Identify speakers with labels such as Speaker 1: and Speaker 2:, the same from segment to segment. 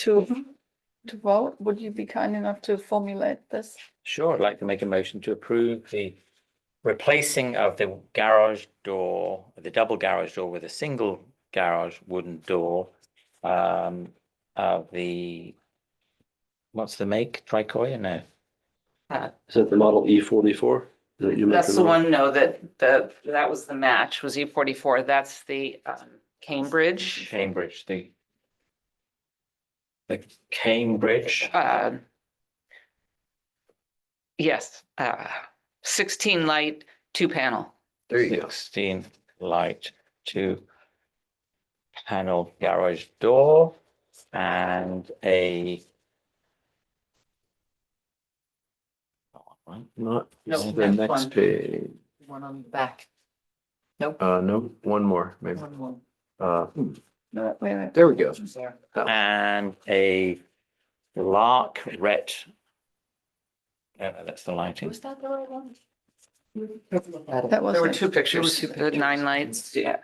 Speaker 1: to, to vote, would you be kind enough to formulate this?
Speaker 2: Sure, I'd like to make a motion to approve the replacing of the garage door, the double garage door with a single garage wooden door. Um, of the, what's the make, tricoya, no,
Speaker 3: Is that the model E forty-four?
Speaker 4: That's the one, no, that, the, that was the match, was E forty-four, that's the um, Cambridge.
Speaker 2: Cambridge, the. The Cambridge,
Speaker 4: uh, Yes, uh, sixteen light, two panel,
Speaker 3: There you go.
Speaker 2: sixteen light, two. Panel garage door and a.
Speaker 5: Not,
Speaker 4: No,
Speaker 5: the
Speaker 4: that's
Speaker 5: next
Speaker 4: one.
Speaker 5: page,
Speaker 4: one on the back,
Speaker 5: uh, no, one more, maybe,
Speaker 4: one more.
Speaker 5: uh,
Speaker 1: No, wait, wait.
Speaker 5: there we go.
Speaker 2: and a lark red. No, no, that's the lighting.
Speaker 4: that the right one?
Speaker 1: That was.
Speaker 4: There were
Speaker 1: it.
Speaker 4: two pictures, the nine lights, yeah.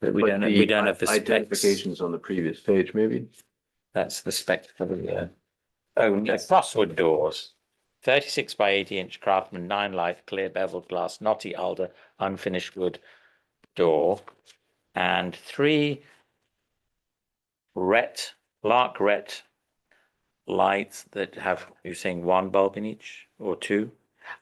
Speaker 2: We
Speaker 5: But
Speaker 2: don't,
Speaker 5: the
Speaker 2: we don't have the specs.
Speaker 5: Identifications on the previous page, maybe,
Speaker 2: That's the spec for the, uh, oh, no, crosswood doors. Thirty-six by eighty inch craftsman, nine light, clear beveled glass, knotty alder, unfinished wood door. And three ret, lark ret lights that have, you're saying one bulb in each or two?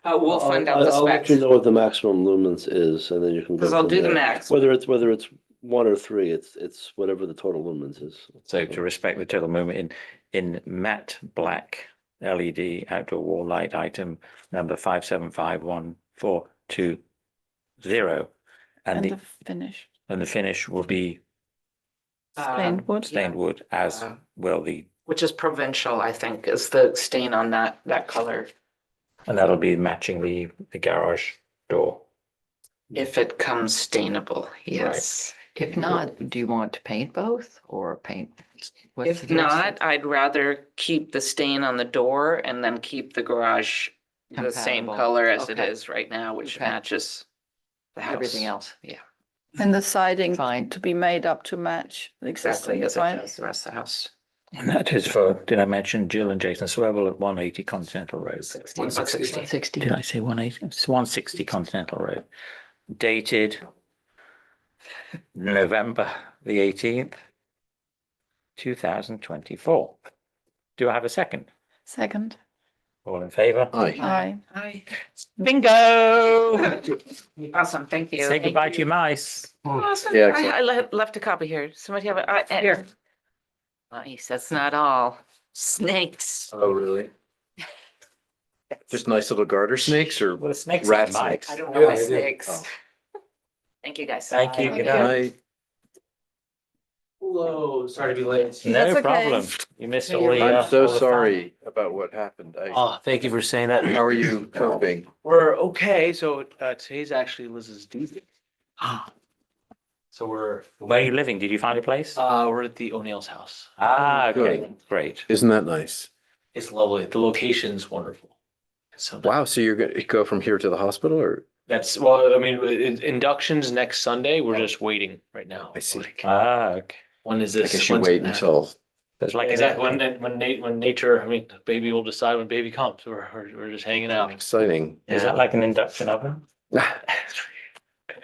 Speaker 4: Uh, we'll find out
Speaker 3: I'll-
Speaker 4: the
Speaker 3: I'll let you
Speaker 4: specs,
Speaker 3: know what the maximum lumens is and then you can. go
Speaker 4: because I'll
Speaker 3: from
Speaker 4: do the
Speaker 3: there.
Speaker 4: max.
Speaker 3: Whether it's, whether it's one or three, it's, it's whatever the total lumens is.
Speaker 2: So to respect the total movement in, in matte black LED outdoor wall light item number five seven five one four two zero. And
Speaker 1: And
Speaker 2: the,
Speaker 1: the finish,
Speaker 2: and the finish will be
Speaker 4: um,
Speaker 1: stained wood.
Speaker 2: stained wood as
Speaker 4: Uh,
Speaker 2: well the,
Speaker 4: Which is provincial, I think, is the stain on that, that color,
Speaker 2: and that'll be matching the, the garage door.
Speaker 4: if it comes stainable, yes.
Speaker 6: If not, do you want to paint both or paint? what's
Speaker 4: If
Speaker 6: the next
Speaker 4: not, I'd rather keep the stain on the door and then keep the garage the same
Speaker 6: Compatible.
Speaker 4: color as it
Speaker 6: Okay.
Speaker 4: is right now, which
Speaker 6: Okay.
Speaker 4: matches the
Speaker 6: step?
Speaker 4: house.
Speaker 6: Everything else, yeah.
Speaker 1: And the siding
Speaker 6: Fine.
Speaker 1: to be made up to match the
Speaker 4: Exactly
Speaker 1: existing,
Speaker 4: as it
Speaker 1: right?
Speaker 4: does the rest of the house.
Speaker 2: And that is for, did I mention Jill and Jason Swivel at one eighty Continental Road?
Speaker 4: One sixty.
Speaker 2: Did
Speaker 6: Sixty.
Speaker 2: I say one eighty? It's one sixty Continental Road. Dated November the eighteenth, two thousand twenty-four. Do I have a second?
Speaker 1: Second,
Speaker 2: All in favor?
Speaker 4: Oh,
Speaker 5: aye.
Speaker 1: aye.
Speaker 4: Hi.
Speaker 2: Bingo!
Speaker 4: Awesome, thank you.
Speaker 2: Say goodbye to your mice.
Speaker 4: Awesome,
Speaker 5: Yeah,
Speaker 4: I,
Speaker 5: excellent.
Speaker 4: I le- left a copy here, somebody have it. Here. Nice, that's not all, snakes.
Speaker 5: Oh, really? Just nice little garter snakes or
Speaker 2: Well, the snakes
Speaker 5: rat
Speaker 2: are mice.
Speaker 5: snakes?
Speaker 4: I don't know my
Speaker 5: Yeah, I do.
Speaker 4: snakes.
Speaker 5: Oh.
Speaker 4: Thank you, guys.
Speaker 2: Thank you, good night.
Speaker 5: Aye.
Speaker 7: Hello, sorry to be late.
Speaker 1: That's
Speaker 2: No
Speaker 1: okay.
Speaker 2: problem. You missed all the. uh,
Speaker 5: I'm so
Speaker 2: all the fun.
Speaker 5: sorry about what happened, I,
Speaker 7: Oh, thank you for saying that.
Speaker 5: how are you coping?
Speaker 7: We're okay, so uh, today's actually Liz's due date. So we're,
Speaker 2: Where are you living? Did you find a place?
Speaker 7: uh, we're at the O'Neill's house.
Speaker 2: Ah,
Speaker 5: good.
Speaker 2: okay, great.
Speaker 5: Isn't that nice?
Speaker 7: It's lovely. The location's wonderful. So
Speaker 5: Wow, so you're gonna go from here to the hospital or?
Speaker 7: that's, well, I mean, in- inductions next Sunday. We're just waiting right now.
Speaker 5: I see.
Speaker 7: Like, uh,
Speaker 2: Ah, okay.
Speaker 7: When is
Speaker 5: I
Speaker 7: this?
Speaker 5: guess you
Speaker 7: When's-
Speaker 5: wait until,
Speaker 2: It's like, is that
Speaker 7: Exactly.
Speaker 2: one?
Speaker 7: When, when na- when nature, I mean, baby will decide when baby comes. We're, we're, we're just hanging out.
Speaker 5: exciting.
Speaker 2: Is that like an induction oven?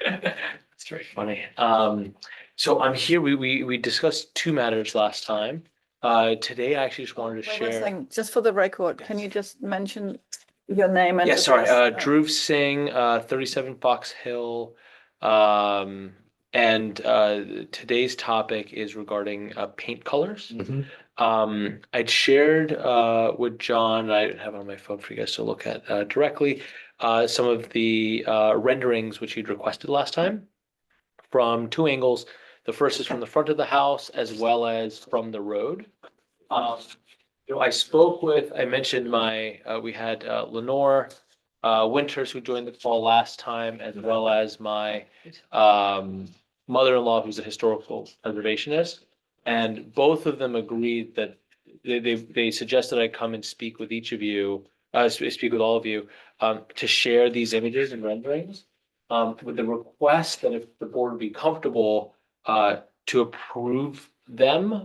Speaker 7: That's very funny. Um, so I'm here, we, we, we discussed two matters last time. Uh, today I actually just wanted to
Speaker 1: Wait one
Speaker 7: share.
Speaker 1: second, Just for the record, can you just mention your name and?
Speaker 7: Yeah, sorry, uh,
Speaker 1: address?
Speaker 7: Dhruv Singh, uh, thirty-seven Fox Hill. Um, and, uh, today's topic is regarding, uh, paint colors.
Speaker 5: Mhm.
Speaker 7: Um, I'd shared, uh, with John, I have it on my phone for you guys to look at, uh, directly, uh, some of the, uh, renderings which you'd requested last time from two angles. The first is from the front of the house as well as from the road. Um, you know, I spoke with, I mentioned my, uh, we had uh, Lenore, uh, Winters who joined the call last time as well as my, um, mother-in-law who's a historical preservationist. And both of them agreed that they, they, they suggested I come and speak with each of you, uh, sp- speak with all of you, um, to share these images and renderings. Um, with the request that if the board would be comfortable, uh, to approve them